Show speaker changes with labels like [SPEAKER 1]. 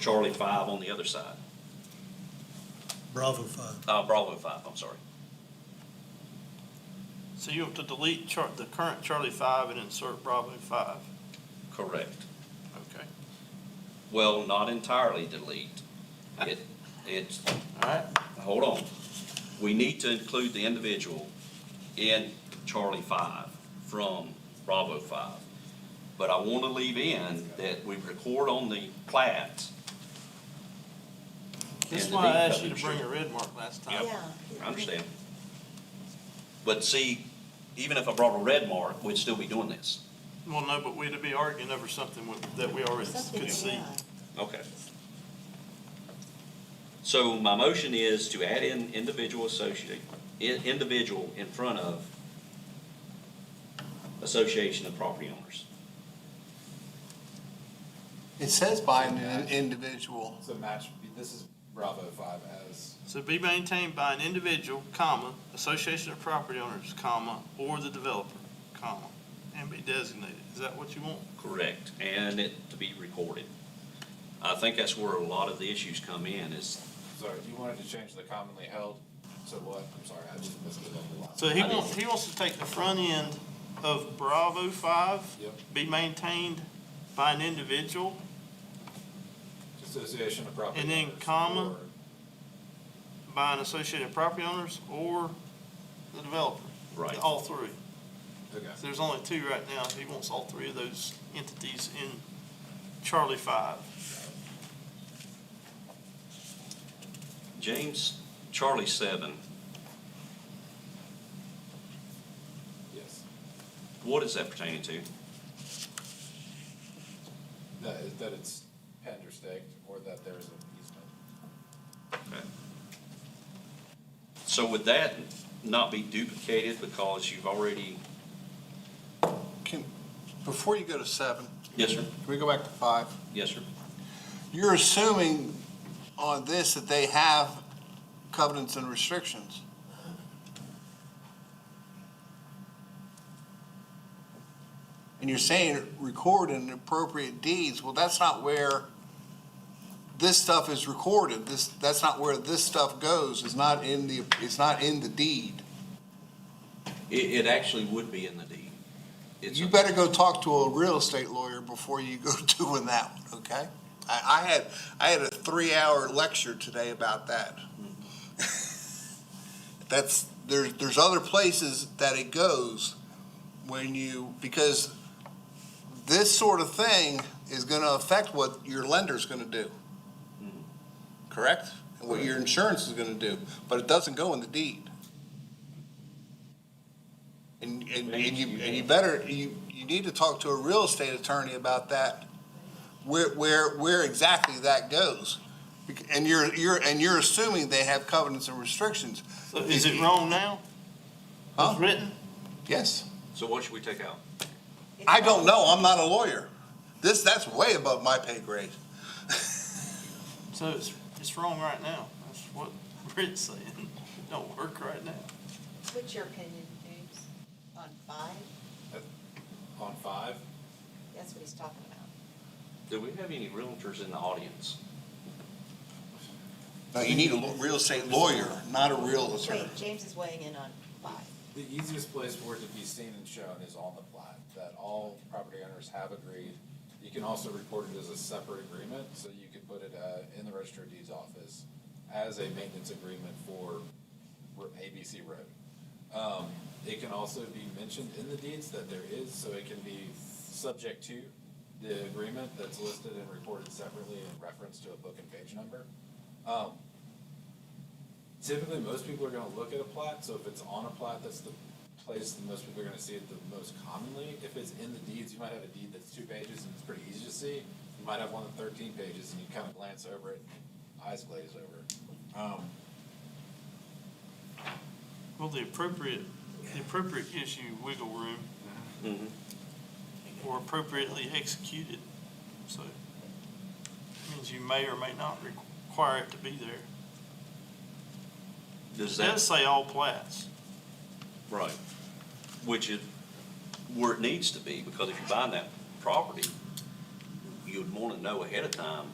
[SPEAKER 1] Charlie five on the other side,
[SPEAKER 2] Bravo five.
[SPEAKER 1] uh, Bravo five, I'm sorry.
[SPEAKER 3] So you have to delete chart, the current Charlie five and insert Bravo five,
[SPEAKER 1] Correct.
[SPEAKER 3] okay,
[SPEAKER 1] Well, not entirely delete. It, it's,
[SPEAKER 3] all right?
[SPEAKER 1] hold on. We need to include the individual in Charlie five from Bravo five. But I want to leave in that we record on the plat.
[SPEAKER 3] This is
[SPEAKER 1] and the
[SPEAKER 3] why I
[SPEAKER 1] deed
[SPEAKER 3] asked you to
[SPEAKER 1] coverage.
[SPEAKER 3] bring a red mark last time.
[SPEAKER 1] Yeah. I understand. But see, even if I brought a red mark, we'd still be doing this.
[SPEAKER 3] Well, no, but we'd be arguing over something with- that we already could
[SPEAKER 4] uh,
[SPEAKER 3] see.
[SPEAKER 1] Okay. So my motion is to add in individual associate, i- individual in front of Association of Property Owners.
[SPEAKER 5] It says by an in- individual.
[SPEAKER 6] So match, this is Bravo five as,
[SPEAKER 3] So be maintained by an individual, comma, association of property owners, comma, or the developer, comma, and be designated. Is that what you want?
[SPEAKER 1] Correct. And it to be recorded. I think that's where a lot of the issues come in is,
[SPEAKER 6] sorry, you wanted to change the commonly held to what? I'm sorry, I just missed it on the line.
[SPEAKER 3] So he wants, he wants to take the front end of Bravo five,
[SPEAKER 6] Yep,
[SPEAKER 3] be maintained by an individual,
[SPEAKER 6] association of property.
[SPEAKER 3] And then
[SPEAKER 6] owners
[SPEAKER 3] comma.
[SPEAKER 6] or-
[SPEAKER 3] by an association of property owners, or the developer.
[SPEAKER 1] right,
[SPEAKER 3] All three.
[SPEAKER 6] Okay,
[SPEAKER 3] So There's only two right now. He wants all three of those entities in Charlie Five.
[SPEAKER 1] James, Charlie seven,
[SPEAKER 6] yes,
[SPEAKER 1] what is that pertaining to?
[SPEAKER 6] that is, that it's penned or staked or that there's an easement.
[SPEAKER 1] Okay. So would that not be duplicated because you've already?
[SPEAKER 5] Can, before you go to seven,
[SPEAKER 1] Yes, sir.
[SPEAKER 5] can we go back to five?
[SPEAKER 1] Yes, sir.
[SPEAKER 5] You're assuming on this that they have covenants and restrictions. And you're saying record in appropriate deeds. Well, that's not where this stuff is recorded. This, that's not where this stuff goes. It's not in the, it's not in the deed.
[SPEAKER 1] It, it actually would be in the deed. It's,
[SPEAKER 5] You
[SPEAKER 1] a-
[SPEAKER 5] better go talk to a real estate lawyer before you go doing that one, okay? I, I had, I had a three-hour lecture today about that. That's, there's, there's other places that it goes when you, because this sort of thing is gonna affect what your lender's gonna do. Correct? And what your insurance is gonna do, but it doesn't go in the deed. And, and, and you, and you better, you, you need to talk to a real estate attorney about that, where, where, where exactly that goes. Bec- And you're, you're, and you're assuming they have covenants and restrictions.
[SPEAKER 3] So is it wrong now?
[SPEAKER 5] Huh?
[SPEAKER 3] It's written?
[SPEAKER 5] Yes.
[SPEAKER 1] so what should we take out?
[SPEAKER 5] I don't know, I'm not a lawyer. This, that's way above my pay grade.
[SPEAKER 3] So it's, it's wrong right now. That's what Britt's saying. It don't work right now.
[SPEAKER 4] What's your opinion, James, on five?
[SPEAKER 6] On five,
[SPEAKER 4] That's what he's talking about.
[SPEAKER 1] Do we have any realtors in the audience?
[SPEAKER 5] No, you need a lo- real estate lawyer, not a real attorney.
[SPEAKER 4] Wait, James is weighing in on five.
[SPEAKER 6] the easiest place for it to be seen and shown is on the plat, that all property owners have agreed. You can also report it as a separate agreement, so you could put it, uh, in the register of deeds office as a maintenance agreement for Ro- ABC Road. Um, it can also be mentioned in the deeds that there is, so it can be subject to the agreement that's listed and reported separately in reference to a book and page number. Um, typically most people are going to look at a plat so if it's on a plat that's the place that most people are going to see it the most commonly if it's in the deeds you might have a deed that's two pages and it's pretty easy to see you might have one that's 13 pages and you kind of glance over it and your eyes glaze over it um,
[SPEAKER 3] Well, the appropriate, the appropriate gives you wiggle room or appropriately executed. So it means you may or may not require it to be there.
[SPEAKER 1] Does
[SPEAKER 3] It does
[SPEAKER 1] that,
[SPEAKER 3] say all plats.
[SPEAKER 1] right, which is where it needs to be, because if you buy that property, you'd want to know ahead of time